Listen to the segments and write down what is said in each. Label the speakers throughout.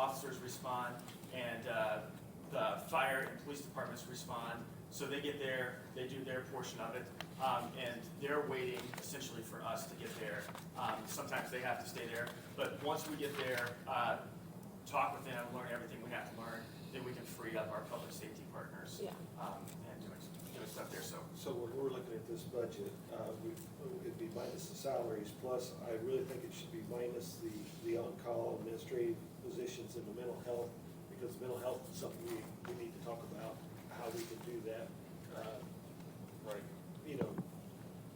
Speaker 1: officers respond, and uh, the fire and police departments respond. So they get there, they do their portion of it, um, and they're waiting essentially for us to get there. Um, Sometimes they have to stay there, but once we get there, uh, talk with them, learn everything we have to learn, then we can free up our public safety partners
Speaker 2: Yeah.
Speaker 1: um, and doing, doing stuff there, so.
Speaker 3: So when we're looking at this budget, uh, we, it'd be minus the salaries, plus I really think it should be minus the, the on-call administrative positions and the mental health, because mental health is something we, we need to talk about, how we can do that. uh,
Speaker 4: Right.
Speaker 3: You know,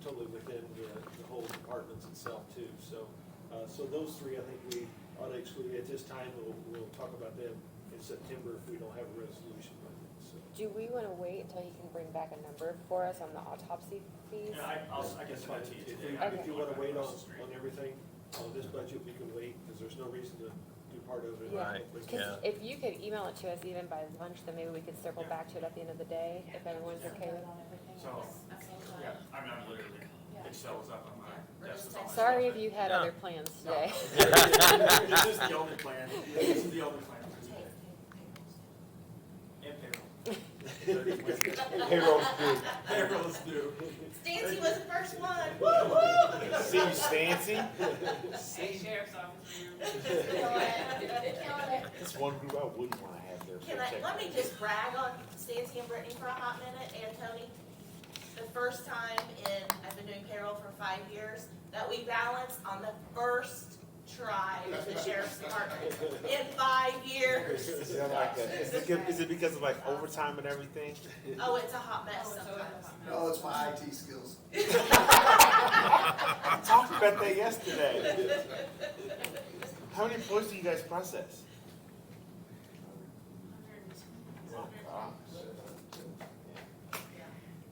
Speaker 3: totally within the, the whole departments itself too, so, uh, so those three, I think we ought to exclude, at this time, we'll, we'll talk about them in September if we don't have a resolution by then, so.
Speaker 2: Do we want to wait until he can bring back a number for us on the autopsy fees?
Speaker 1: And I, I'll, I guess I'll
Speaker 3: If
Speaker 1: to you
Speaker 3: you-
Speaker 1: today.
Speaker 3: If you wanna wait on, on everything, on this budget, we can wait, because there's no reason to do part of it.
Speaker 2: Yeah.
Speaker 4: Right,
Speaker 3: But-
Speaker 2: Because
Speaker 4: Yeah.
Speaker 2: if you could email it to us even by lunch, then maybe we could circle
Speaker 1: Yeah.
Speaker 2: back to it at the end of the day, if everyone's
Speaker 5: Just
Speaker 2: okay
Speaker 5: vote
Speaker 2: with
Speaker 5: on everything
Speaker 1: So,
Speaker 5: else at the same time.
Speaker 1: Yeah, I mean, I'm literally,
Speaker 5: Yeah.
Speaker 1: Excel was up on
Speaker 5: Yeah.
Speaker 1: my desk. with all my
Speaker 2: it. Sorry
Speaker 1: stuff.
Speaker 2: if you had
Speaker 4: No.
Speaker 2: other plans
Speaker 1: No.
Speaker 2: today.
Speaker 1: This is the only plan, this is the only plan for
Speaker 5: Take-
Speaker 1: today,
Speaker 5: take- take
Speaker 1: and payroll.
Speaker 6: Payroll's due.
Speaker 1: Payroll is due.
Speaker 5: those. Stacy was the first one. Woo,
Speaker 6: See you, Stancy.
Speaker 7: Hey, Sheriff's Office, you're-
Speaker 5: woo.
Speaker 6: That's one group I wouldn't want to have there. for
Speaker 5: Can I,
Speaker 6: executive.
Speaker 5: let me just brag on Stacy and Brittany for a hot minute, and Tony. The first time in, I've been doing payroll for five years, that we balanced on the first try of the sheriff's department. In five years.
Speaker 6: Is that like a- is it because- is it because of like overtime and everything?
Speaker 5: Oh, it's a hot
Speaker 7: Oh,
Speaker 5: mess
Speaker 7: it's
Speaker 5: sometimes.
Speaker 7: over.
Speaker 8: No, it's my IT skills.
Speaker 6: I talked about that yesterday. How many employees do you guys process? Oh, wow.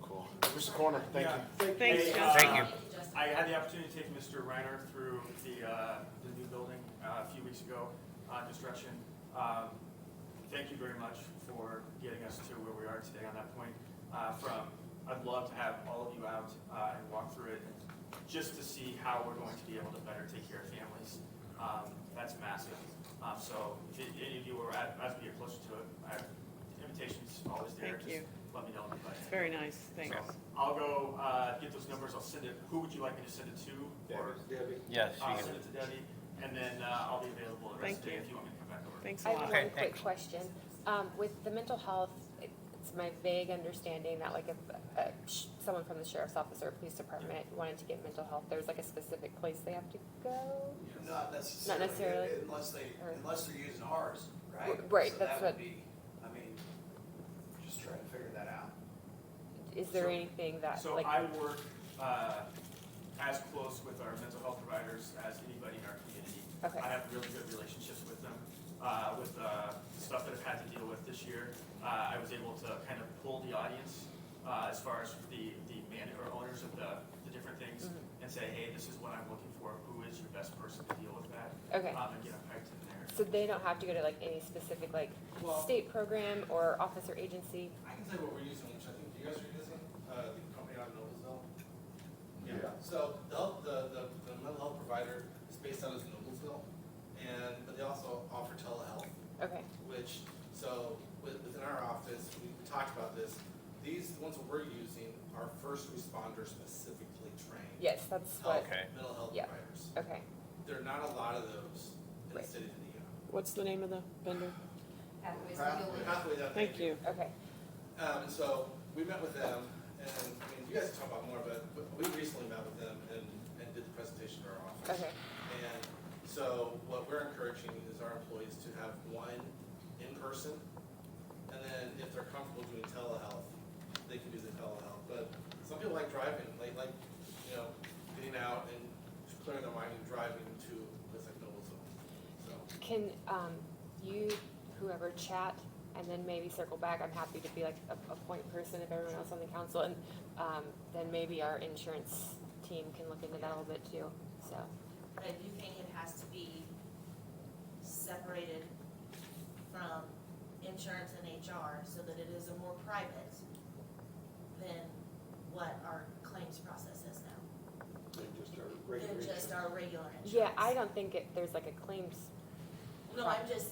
Speaker 6: Cool. Mr. Corner, thank you.
Speaker 1: Thanks,
Speaker 7: Thank
Speaker 1: you. I had the opportunity to take Mr. Reiner through the, uh, the new building uh, a few weeks ago, uh, construction. Um, Thank you very much for getting us to where we are today on that point. Uh, From, I'd love to have all of you out uh, and walk through it, just to see how we're going to be able to better take care of families. Um, That's massive. Um, So if any of you are, at- as we get closer to it, I have invitations always there.
Speaker 9: Thank you.
Speaker 1: Just Let me know. if anybody-
Speaker 9: It's very nice, thanks.
Speaker 1: so I'll go, uh, get those numbers, I'll send it, who would you like me to send it to? Or
Speaker 3: Debbie,
Speaker 4: Yes, you
Speaker 1: I'll
Speaker 4: can-
Speaker 1: send it to Debbie, and then, uh, I'll be available the rest of the day if
Speaker 9: Thank you.
Speaker 1: you want me to come back over.
Speaker 9: Thanks
Speaker 2: I
Speaker 9: a
Speaker 2: have
Speaker 9: lot.
Speaker 2: one quick question. Um, with the mental health, it- it's my vague understanding that like if, uh, sh- someone from the sheriff's office or police department wanted to get mental health, there's like a specific place they have to go?
Speaker 8: Not necessarily.
Speaker 2: Not necessarily.
Speaker 8: Unless they,
Speaker 2: Or-
Speaker 8: unless they're using ours, right?
Speaker 2: Right,
Speaker 8: So
Speaker 2: that's
Speaker 8: that would
Speaker 2: what-
Speaker 8: be- I mean, just trying to figure that out.
Speaker 2: Is there
Speaker 1: So-
Speaker 2: anything that,
Speaker 1: So
Speaker 2: like,
Speaker 1: I work, uh, as close with our mental health providers as anybody in our community.
Speaker 2: Okay.
Speaker 1: I have really good relationships with them, uh, with, uh, the stuff that I've had to deal with this year. Uh, I was able to kind of pull the audience, uh, as far as the, the man, or owners of the, the different things,
Speaker 2: Mm-hmm.
Speaker 1: and say, hey, this is what I'm looking for, who is your best person to deal with that?
Speaker 2: okay.
Speaker 1: Um, and get them hyped in there.
Speaker 2: So they don't have to go to like any specific like
Speaker 10: Well-
Speaker 2: state program or office or agency?
Speaker 10: I can tell you what we're using, which I think you guys are using, uh, the company out of Noblesville.
Speaker 8: Yeah.
Speaker 10: So the, health- the, the, the mental health provider is based out of Noblesville, and, but they also offer telehealth,
Speaker 2: Okay,
Speaker 10: which, so with- within our office, we we talked about this. These ones that we're using are first responder specifically trained.
Speaker 2: yes, that's
Speaker 8: Oh,
Speaker 10: Health,
Speaker 2: what,
Speaker 4: Okay.
Speaker 10: mental health
Speaker 2: Yeah.
Speaker 10: providers.
Speaker 2: okay.
Speaker 10: There are not a lot of those in the
Speaker 2: Right.
Speaker 10: city of Indiana.
Speaker 9: What's the name of the vendor?
Speaker 5: Pathways to
Speaker 8: Pathway.
Speaker 5: healing.
Speaker 10: Pathways out there.
Speaker 9: Thank you.
Speaker 2: Okay,
Speaker 10: Um, and so we met with them, and I mean, you guys can talk about more, but but we recently met with them and, and did the presentation to our office.
Speaker 2: okay,
Speaker 10: And so what we're encouraging is our employees to have one in person, and then if they're comfortable doing telehealth, they can do the telehealth. But some people like driving, like, like, you know, getting out and clearing their mind and driving to a place like Noblesville. So,
Speaker 2: can, um, you, whoever chat and then maybe circle back, I'm happy to be like a, a point person if everyone else on the council and, um, then maybe our insurance team can look into that a little bit too, so,
Speaker 5: But I do think it has to be separated from insurance and HR so that it is a more private than what our claims process is now,
Speaker 3: and just our
Speaker 5: than
Speaker 3: regular.
Speaker 5: just our regular insurance.
Speaker 2: yeah, I don't think it, there's like a claims
Speaker 5: No, I'm just